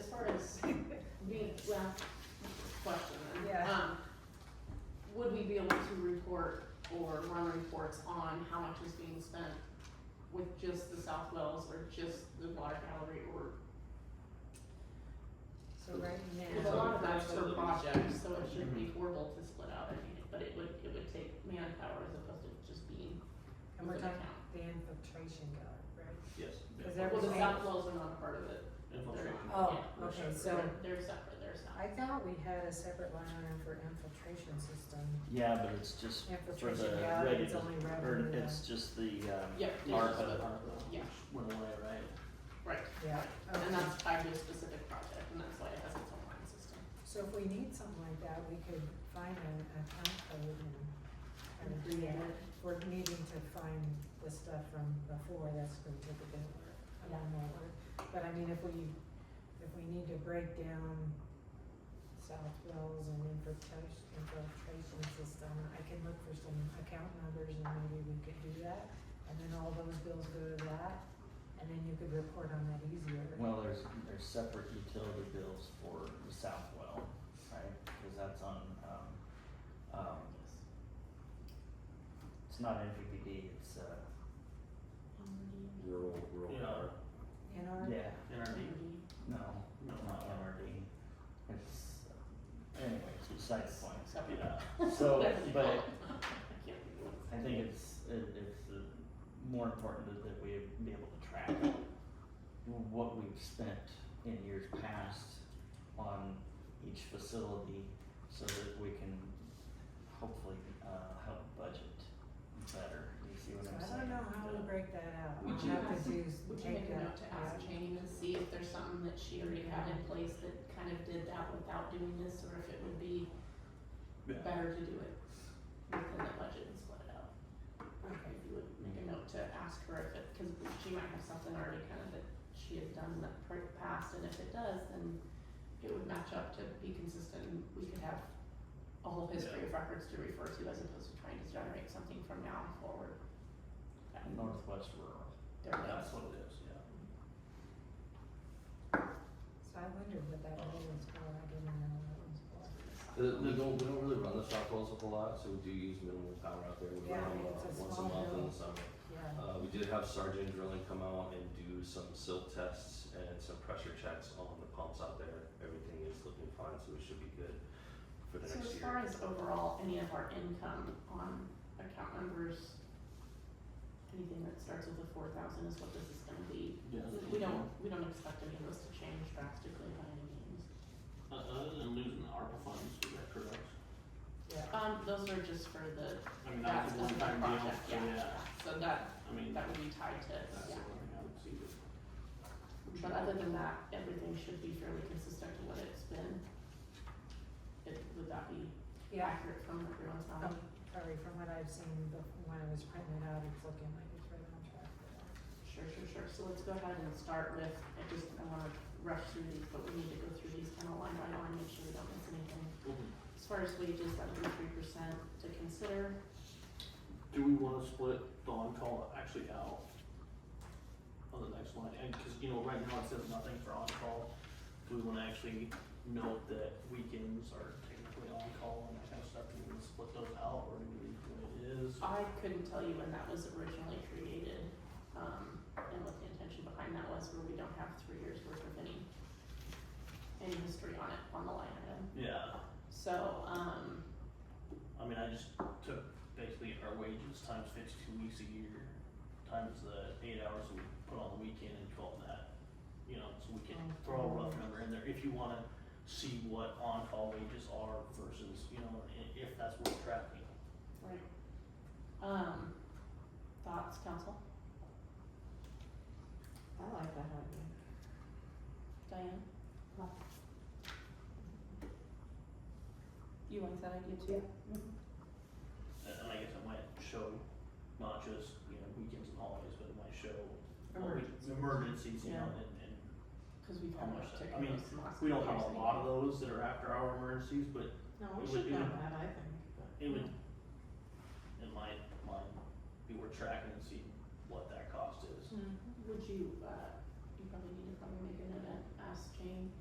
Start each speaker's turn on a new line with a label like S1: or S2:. S1: well, question then.
S2: Yeah.
S1: Um, would we be able to report or run reports on how much is being spent with just the South Wells or just the water gallery or,
S2: So right
S1: because a
S2: now,
S1: lot of that's for
S3: Absolutely.
S1: projects, so it shouldn't be horrible to split out, I mean, but it would, it would take manpower as opposed to just being
S2: and
S1: with
S2: we're
S1: an
S2: talking
S1: account.
S2: the infiltration guard, right? Is
S3: Yes. yeah.
S2: there-
S1: Well, the
S2: Everything-
S1: South Wells are not a part of it,
S3: Infiltration.
S2: Oh,
S3: We're
S2: okay,
S3: separate.
S2: so
S1: they're, they're separate, they're
S2: I
S1: separate.
S2: thought we had a separate line item for infiltration system.
S4: Yeah, but it's just for the
S2: Infiltration gallery,
S4: reg-
S2: it's only
S4: or
S2: revenue.
S4: it's just the um
S1: Yeah,
S3: Yeah,
S4: ARPA.
S3: so that ARPA
S1: Yeah.
S3: Went away, right?
S1: right,
S2: Yeah,
S1: and
S2: okay.
S1: that's tied to a specific project, and that's why it has its own line system.
S2: So if we need something like that, we could find an account code and, and do it. We're needing to find the stuff from before, that's gonna take a bit of work, a lot more work. But I mean, if we, if we need to break down South Wells and infiltration, infiltration system, I can look for some account numbers and maybe we could do that. And then all those bills go to that, and then you could report on that easier.
S4: Well, there's, there's separate utility bills for the Southwell, right? Cause that's on, um, um, it's not NPPD, it's, uh,
S5: rural, rural
S3: Yeah.
S5: power.
S2: In our,
S4: yeah,
S3: NRD?
S4: no,
S3: No,
S4: not NRD. It's, uh, anyways, beside the point.
S1: Separate.
S4: Yeah, so, but
S1: I can't think of
S4: I think it's, it, it's uh, more important that- that we be able to track what we've spent in years past on each facility so that we can hopefully, uh, help budget better, you see what
S2: So
S4: I'm
S2: I
S4: saying?
S2: don't know how we break that out,
S1: Would
S2: we'll
S1: you
S2: have to
S1: ask-
S2: do,
S1: Would you
S2: take
S1: make a note
S2: that.
S1: to ask Jane and see if there's something that she already had in place that kind of did that without doing this, or if it would be
S3: Yeah.
S1: better to do it within the budget and split it out? If you would make a note to ask her if it, cause she might have something already kind of that she has done in the pr- past, and if it does, then it would match up to be consistent, and we could have a whole history of records to refer to as opposed to trying to generate something from now forward. That would-
S4: Northwest rural.
S1: There it
S3: That's
S1: goes.
S3: what it is, yeah.
S2: So I wondered what that rule was for, I didn't know what it was for.
S5: The, the, don't, Uh, we don't really run the shop wells a whole lot, so we do use minimal power out there, we
S2: Yeah,
S5: run them
S2: it's a
S5: uh, once a
S2: small
S5: month in
S2: drill.
S5: the summer.
S2: Yeah,
S5: Uh, we did have Sergeant Drilling come out and do some silt tests and some pressure checks on the pumps out there, everything is looking fine, so we should be good for the
S1: So
S5: next
S1: as
S5: year.
S1: far as overall, any of our income on account numbers, anything that starts with a four thousand is what this is gonna be. We don't, we don't expect any of this to change drastically by any means.
S3: Uh, other than losing the ARPA funds, is that correct?
S2: yeah.
S1: Um, those are just for the,
S3: I mean,
S1: that's
S3: that's a
S1: the
S3: one-time deal,
S1: project,
S3: so yeah,
S1: yeah, so that,
S3: I mean,
S1: that would be tied to,
S3: that's the
S1: yeah.
S3: only thing I would see.
S1: But other than that, everything should be fairly consistent to what it's been. It, would that be
S2: Yeah,
S1: accurate from everyone's knowledge?
S2: um, sorry, from what I've seen, but when it was printed out, it's looking like it's right on track for that.
S1: Sure, sure, sure. So let's go ahead and start with, I just, I wanna rush through these, but we need to go through these kind of line by line, make sure we don't miss anything. As far as wages, that would be three percent to consider.
S3: Do we wanna split the on-call actually out on the next line? And, cause you know, right now it says nothing for on-call. Do we wanna actually note that weekends are technically on-call and that kind of stuff? Do we wanna split those out or do we leave it what it is?
S1: I couldn't tell you when that was originally created, um, and what the intention behind that was, where we don't have three years worth of any, any history on it, on the line item.
S3: Yeah,
S1: So, um,
S3: I mean, I just took basically our wages times fifty-two weeks a year, times the eight hours we put on the weekend and call that, you know, so we can
S1: Oh.
S3: throw a rough number in there if you wanna see what on-call wages are versus, you know, i- if that's worth tracking.
S1: right. Um, thoughts, council?
S6: I like that idea.
S1: Diane?
S6: Huh.
S1: You like that idea too?
S3: And and I guess it might show not just, you know, weekends and holidays, but it might show what we-
S1: Emergencies.
S3: emergencies, you know,
S1: Yeah.
S3: and, and
S1: Cause we've
S3: How
S1: had
S3: much
S1: much
S3: that-
S1: ticket.
S3: I mean,
S1: those last
S3: we don't
S1: couple
S3: have a
S1: years
S3: lot of those that are after-hour emergencies, but
S6: No,
S3: It
S6: we
S3: would-
S6: should
S3: it
S6: know
S3: would-
S6: that, I think, but.
S3: It would, in my mind, be worth tracking and seeing what that cost is.
S2: Mm-hmm.
S1: Would you, uh, you probably need to probably make an event, ask Jane,